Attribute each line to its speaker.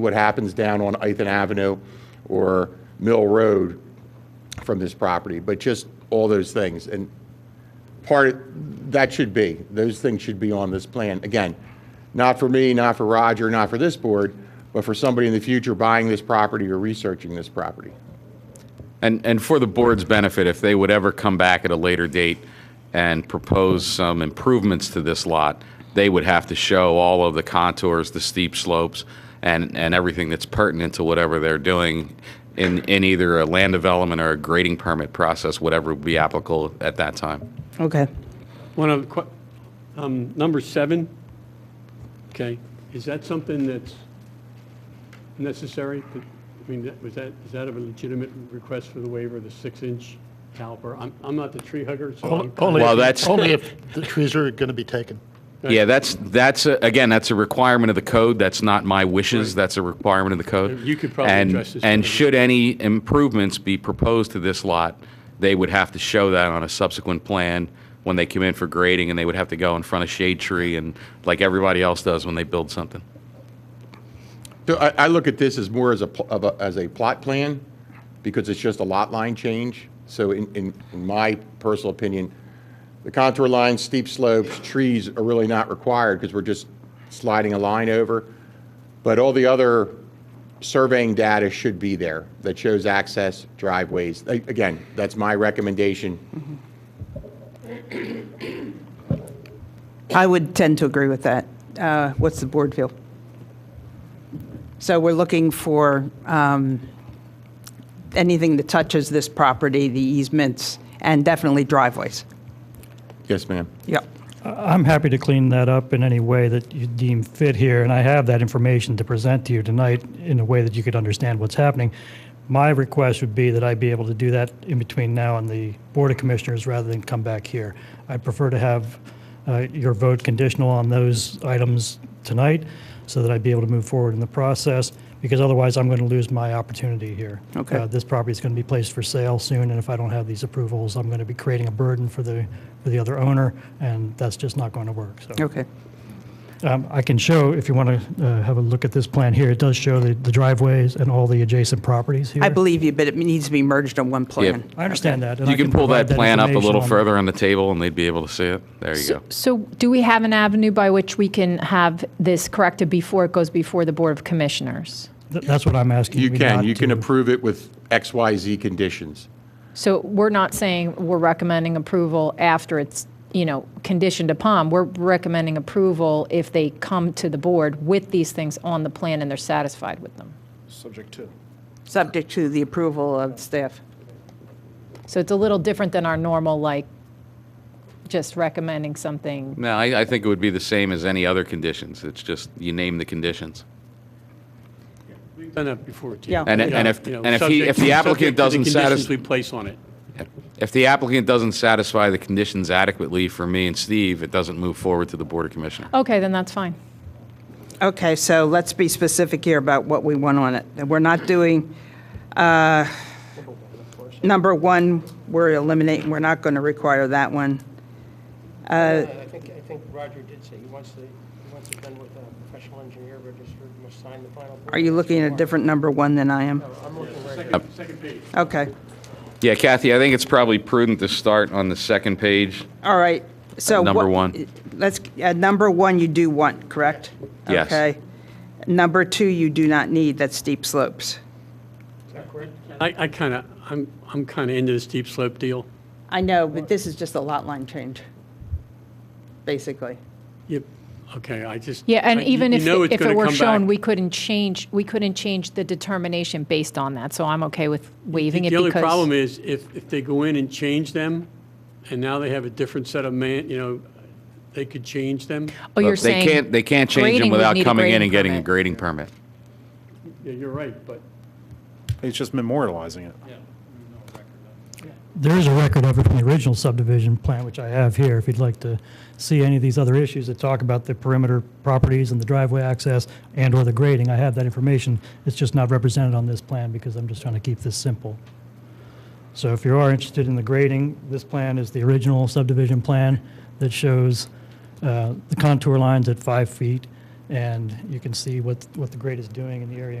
Speaker 1: what happens down on Ethan Avenue or Mill Road from this property, but just all those things. And part, that should be, those things should be on this plan. Again, not for me, not for Roger, not for this board, but for somebody in the future buying this property or researching this property.
Speaker 2: And, and for the board's benefit, if they would ever come back at a later date and propose some improvements to this lot, they would have to show all of the contours, the steep slopes, and, and everything that's pertinent to whatever they're doing in, in either a land development or a grading permit process, whatever would be applicable at that time.
Speaker 3: Okay.
Speaker 4: One of, que- um, number seven, okay, is that something that's necessary? I mean, that- was that, is that a legitimate request for the waiver, the six-inch caliper? I'm, I'm not the tree hugger, so I'm.
Speaker 5: Only- Only,
Speaker 2: Well,
Speaker 5: if-
Speaker 2: that's-
Speaker 5: only if the trees are going to be taken.
Speaker 2: Yeah, that's, that's, a- again, that's a requirement of the code. That's not my wishes. That's a requirement of the code.
Speaker 4: You could probably
Speaker 2: And-
Speaker 4: address this
Speaker 2: And
Speaker 4: further.
Speaker 2: should any improvements be proposed to this lot, they would have to show that on a subsequent plan when they come in for grading, and they would have to go in front of shade tree and, like everybody else does when they build something.
Speaker 1: So I, I look at this as more as a, pl- of a, as a plot plan, because it's just a lot line change. So in, in, in my personal opinion, the contour lines, steep slopes, trees are really not required, because we're just sliding a line over. But all the other surveying data should be there, that shows access, driveways. A- Again, that's my recommendation.
Speaker 3: I would tend to agree with that. Uh, What's the board feel? So we're looking for um, anything that touches this property, the easements, and definitely driveways.
Speaker 1: Yes, ma'am.
Speaker 3: Yep.
Speaker 6: I'm happy to clean that up in any way that you deem fit here, and I have that information to present to you tonight in a way that you could understand what's happening. My request would be that I be able to do that in between now and the Board of Commissioners rather than come back here. I prefer to have uh, your vote conditional on those items tonight so that I'd be able to move forward in the process, because otherwise I'm going to lose my opportunity here.
Speaker 3: Okay.
Speaker 6: Uh, This property is going to be placed for sale soon, and if I don't have these approvals, I'm going to be creating a burden for the, for the other owner, and that's just not going to work, so.
Speaker 3: Okay.
Speaker 6: Um, I can show, if you want to have a look at this plan here, it does show the the driveways and all the adjacent properties here.
Speaker 3: I believe you, but it needs to be merged on one plan.
Speaker 6: I understand that. and I
Speaker 2: You can pull
Speaker 6: provide
Speaker 2: that plan up a
Speaker 6: information
Speaker 2: little
Speaker 6: on-
Speaker 2: further on the table, and they'd be able to see it. There you go.
Speaker 7: So do we have an avenue by which we can have this corrected before it goes before the Board of Commissioners?
Speaker 6: Th- That's what I'm asking.
Speaker 1: You can,
Speaker 6: not
Speaker 1: you can
Speaker 6: to-
Speaker 1: approve it with X, Y, Z conditions.
Speaker 7: So we're not saying we're recommending approval after it's, you know, conditioned upon. We're recommending approval if they come to the board with these things on the plan and they're satisfied with them.
Speaker 5: Subject to.
Speaker 3: Subject to the approval of staff.
Speaker 7: So it's a little different than our normal, like, just recommending something.
Speaker 2: No, I, I think it would be the same as any other conditions. It's just, you name the conditions.
Speaker 4: We've done that before, too.
Speaker 3: Yeah.
Speaker 2: And-
Speaker 4: You know,
Speaker 2: and if-
Speaker 4: Oh, you know,
Speaker 2: and if he-
Speaker 4: subject-
Speaker 2: if the applicant
Speaker 4: subject to
Speaker 2: doesn't
Speaker 4: The conditions
Speaker 2: satis-
Speaker 4: we place on it.
Speaker 2: If the applicant doesn't satisfy the conditions adequately for me and Steve, it doesn't move forward to the Board of Commissioners.
Speaker 7: Okay, then that's fine.
Speaker 3: Okay, so let's be specific here about what we want on it. And We're not doing, uh, number one, we're eliminating, we're not going to require that one. Uh,
Speaker 8: I think, I think Roger did say he wants to, he wants it done with a professional engineer registered and must sign the final.
Speaker 3: Are you looking at a different number one than I am?
Speaker 8: I'm looking right here.
Speaker 4: Second page.
Speaker 3: Okay,
Speaker 2: Yeah, Kathy, I think it's probably prudent to start on the second page.
Speaker 3: all right, so.
Speaker 2: At number
Speaker 3: what-
Speaker 2: one.
Speaker 3: Let's, at number one, you do want, correct?
Speaker 2: Yes.
Speaker 3: Okay. Number two, you do not need, that's steep slopes.
Speaker 8: Is that correct?
Speaker 4: I, I kind of, I'm, I'm kind of into this steep slope deal.
Speaker 3: I know, but this is just a lot line change, basically.
Speaker 4: Yep, okay, I just.
Speaker 7: Yeah, and
Speaker 4: I- you-
Speaker 7: even
Speaker 4: you
Speaker 7: if,
Speaker 4: know
Speaker 7: it-
Speaker 4: it's
Speaker 7: if it
Speaker 4: gonna
Speaker 7: were
Speaker 4: come
Speaker 7: shown,
Speaker 4: back.
Speaker 7: we couldn't change, we couldn't change the determination based on that, so I'm okay with waiving it
Speaker 4: The only problem
Speaker 7: because.
Speaker 4: is if, if they go in and change them, and now they have a different set of man, you know, they could change them.
Speaker 7: Oh, you're
Speaker 2: Look, they
Speaker 7: saying
Speaker 2: can't, they can't change
Speaker 7: grading
Speaker 2: them
Speaker 7: would
Speaker 2: without
Speaker 7: need a
Speaker 2: coming in
Speaker 7: grading
Speaker 2: and getting a
Speaker 7: permit.
Speaker 2: grading permit.
Speaker 4: Yeah, you're right, but.
Speaker 9: It's just memorializing it.
Speaker 6: There is a record of it from the original subdivision plan, which I have here, if you'd like to see any of these other issues that talk about the perimeter properties and the driveway access and/or the grading. I have that information. It's just not represented on this plan because I'm just trying to keep this simple. So if you are interested in the grading, this plan is the original subdivision plan that shows uh, the contour lines at five feet and you can see what, what the grade is doing in the area